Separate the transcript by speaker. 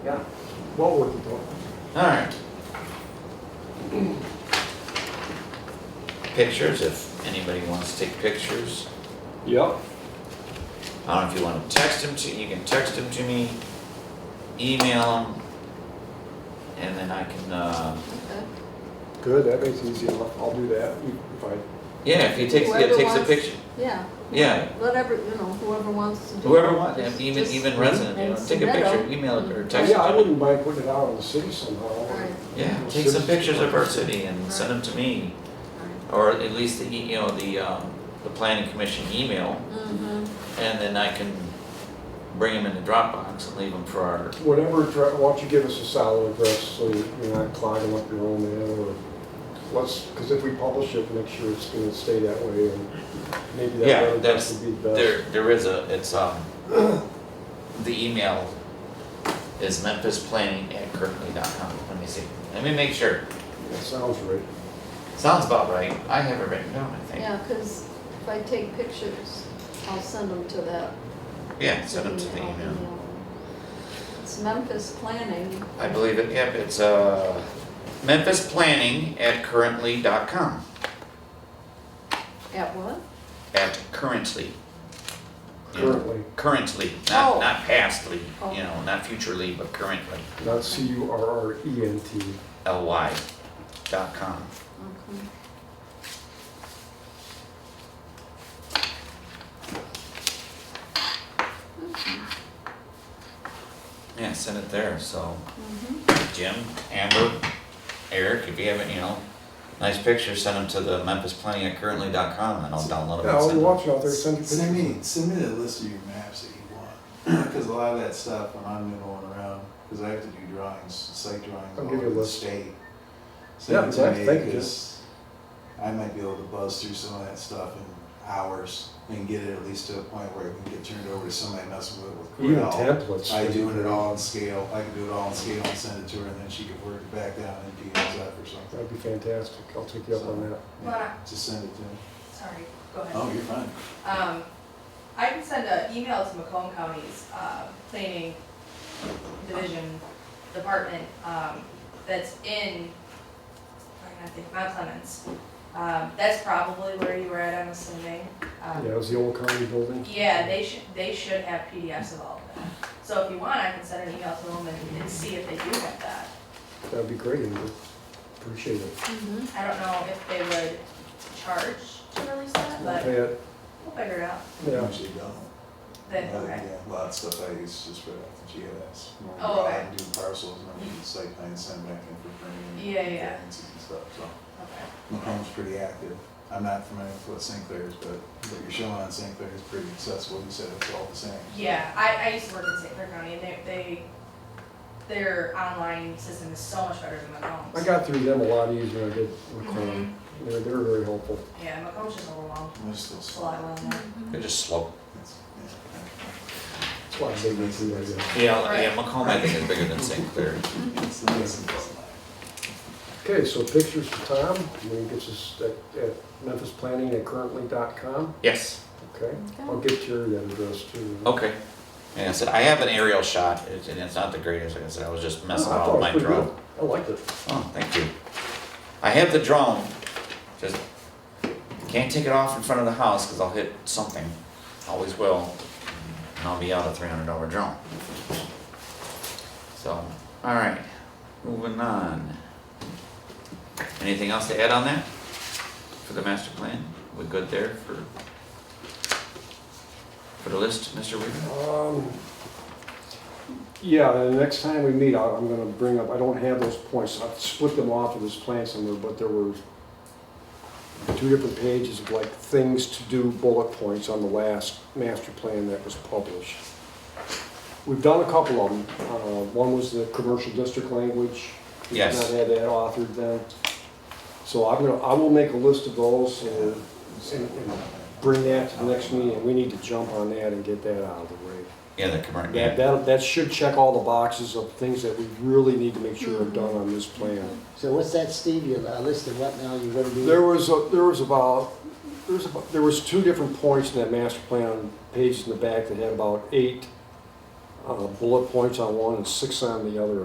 Speaker 1: Yeah.
Speaker 2: What would you do?
Speaker 3: Alright. Pictures, if anybody wants to take pictures.
Speaker 2: Yep.
Speaker 3: I don't know if you wanna text them to, you can text them to me, email them, and then I can, uh,
Speaker 2: Good, that makes it easy enough. I'll do that if I,
Speaker 3: yeah, if he takes, yeah,
Speaker 1: Whoever
Speaker 3: takes a
Speaker 1: wants-
Speaker 3: picture,
Speaker 1: Yeah.
Speaker 3: Yeah.
Speaker 1: Whatever, you know, whoever wants to do.
Speaker 3: whoever
Speaker 1: it,
Speaker 3: wants, and
Speaker 1: just-
Speaker 3: even,
Speaker 1: just-
Speaker 3: even resident, you
Speaker 1: and
Speaker 3: know, take a
Speaker 1: submit
Speaker 3: picture,
Speaker 1: 'em.
Speaker 3: email it or
Speaker 2: Oh,
Speaker 3: text it
Speaker 2: yeah, I
Speaker 3: to me.
Speaker 2: wouldn't mind putting it out on the city somehow.
Speaker 1: Right.
Speaker 3: Yeah, take some pictures of our city and send them to me, or at least the, e- you know, the, um, the planning commission email.
Speaker 1: Mm-hmm,
Speaker 3: And then I can bring them in the Dropbox and leave them for our,
Speaker 2: Whatever, addre- why don't you give us a solid address so you're not clogging up your own mail or let's, because if we publish it, make sure it's gonna stay that way and maybe
Speaker 3: Yeah,
Speaker 2: that other address
Speaker 3: that's-
Speaker 2: would be the best.
Speaker 3: there, there is a, it's, um, the email is memphisplanning@kirkley.com. Let me see, let me make sure.
Speaker 2: That sounds right.
Speaker 3: Sounds about right. I have it written down, I think.
Speaker 1: yeah, because if I take pictures, I'll send them to that.
Speaker 3: Yeah, send them to the email.
Speaker 1: It's Memphis Planning.
Speaker 3: I believe it, yep, it's, uh, memphisplanning@currently.com,
Speaker 1: At what?
Speaker 3: at currently.
Speaker 2: Currently,
Speaker 3: Currently,
Speaker 1: Oh.
Speaker 3: not, not pastly,
Speaker 1: Oh.
Speaker 3: you know, not futurely, but currently,
Speaker 2: not C U R R E N T.
Speaker 3: L-Y dot com.
Speaker 1: Okay.
Speaker 3: Yeah, send it there, so
Speaker 1: Mhm.
Speaker 3: Jim, Amber, Eric, if you haven't, you know, nice pictures, send them to the Memphis Planning at currently.com and I'll download them
Speaker 2: Yeah,
Speaker 3: and
Speaker 2: I'll
Speaker 3: send them.
Speaker 2: watch out there, send it to
Speaker 4: Send me, send me a list of your maps that you want, because a lot of that stuff, when I'm noodling around, because I have to do drawings, site drawings
Speaker 2: I'll
Speaker 4: all
Speaker 2: give you a
Speaker 4: over the
Speaker 2: list.
Speaker 4: state.
Speaker 2: Yeah,
Speaker 4: Send it to
Speaker 2: thank-
Speaker 4: me,
Speaker 2: thank you.
Speaker 4: 'cause I might be able to buzz through some of that stuff in hours and get it at least to a point where it can get turned over to somebody messing with it with
Speaker 2: even
Speaker 4: Corel.
Speaker 2: templates.
Speaker 4: I doing it all in scale, I can do it all in scale and send it to her, and then she could work it back down and do it up or something.
Speaker 2: That'd be fantastic. I'll take you up on that.
Speaker 4: Yeah, Just send it to me.
Speaker 5: Sorry, go ahead.
Speaker 4: Oh, you're fine.
Speaker 5: Um, I can send an email to Macomb County's, uh, planning division department, um, that's in, I think, Mount Clemens. Um, that's probably where you were at, I'm assuming. Um,
Speaker 2: Yeah, it was the old county building.
Speaker 5: Yeah, they should, they should have PDFs of all of that. So if you want, I can send an email to them and, and see if they do have that.
Speaker 2: That'd be great, Andrew. Appreciate it.
Speaker 1: Mhm.
Speaker 5: I don't know if they would charge to release that,
Speaker 2: We'll
Speaker 5: but
Speaker 2: pay it.
Speaker 5: we'll figure it out.
Speaker 2: Yeah.
Speaker 4: Usually don't.
Speaker 5: Then,
Speaker 4: Uh,
Speaker 5: okay.
Speaker 4: yeah, A lot of stuff I use just right off the GIS. When we
Speaker 5: Oh,
Speaker 4: go out
Speaker 5: okay.
Speaker 4: and Do parcels and then we do site plan, send back in for framing.
Speaker 5: Yeah, yeah.
Speaker 4: And stuff, so.
Speaker 5: Okay.
Speaker 4: Macomb's pretty active. I'm not familiar with what St. Clair's, but what you're showing on St. Clair is pretty accessible. You said it's all the same.
Speaker 5: Yeah, I, I used to work in St. Clair County and they, they, their online system is so much better than Macomb's.
Speaker 2: I got through them a lot easier than I did with Crown.
Speaker 5: Mhm.
Speaker 2: They're, they're very helpful.
Speaker 5: Yeah, Macomb's just overwhelmed,
Speaker 4: We're still
Speaker 5: it's a lot
Speaker 4: slow.
Speaker 5: going on.
Speaker 3: They're just slow.
Speaker 4: It's- yeah.
Speaker 2: That's why I say that's the idea.
Speaker 3: Yeah, yeah, Macomb, I think is bigger than St. Clair.
Speaker 4: It's the reason it's like-
Speaker 2: Okay, so pictures for Tom, and then he gets us at, at memphisplanning@currently.com.
Speaker 3: Yes,
Speaker 2: Okay, I'll get your that address too.
Speaker 3: okay. And I said, I have an aerial shot, it's- and it's not the greatest, like I said, I was just
Speaker 2: Oh, I
Speaker 3: messing
Speaker 2: thought it
Speaker 3: around with
Speaker 2: was
Speaker 3: my
Speaker 2: pretty
Speaker 3: drone.
Speaker 2: good. I liked it.
Speaker 3: Oh, thank you. I have the drone, just can't take it off in front of the house because I'll hit something. Always will. And I'll be out a three hundred dollar drone. So, alright, moving on. Anything else to add on that? For the master plan? We good there for for the list, Mr. Weaver?
Speaker 2: Um, Yeah, the next time we meet, I- I'm gonna bring up, I don't have those points, I've split them off of this plan somewhere, but there were two different pages of like things to do bullet points on the last master plan that was published. We've done a couple of them, uh, one was the commercial district language. We did
Speaker 3: Yes.
Speaker 2: Not had that authored then. So I'm gonna, I will make a list of those and and- and bring that to the next meeting, we need to jump on that and get that out of the way.
Speaker 3: Yeah, the commercial,
Speaker 2: That,
Speaker 3: yeah,
Speaker 2: that, that should check all the boxes of things that we really need to make sure are done on this plan.
Speaker 6: So what's that, Steve, you uh, listed what now you're gonna do?
Speaker 2: There was, a- there was about, there was about, there was two different points in that master plan, pages in the back that had about eight uh, bullet points on one and six on the other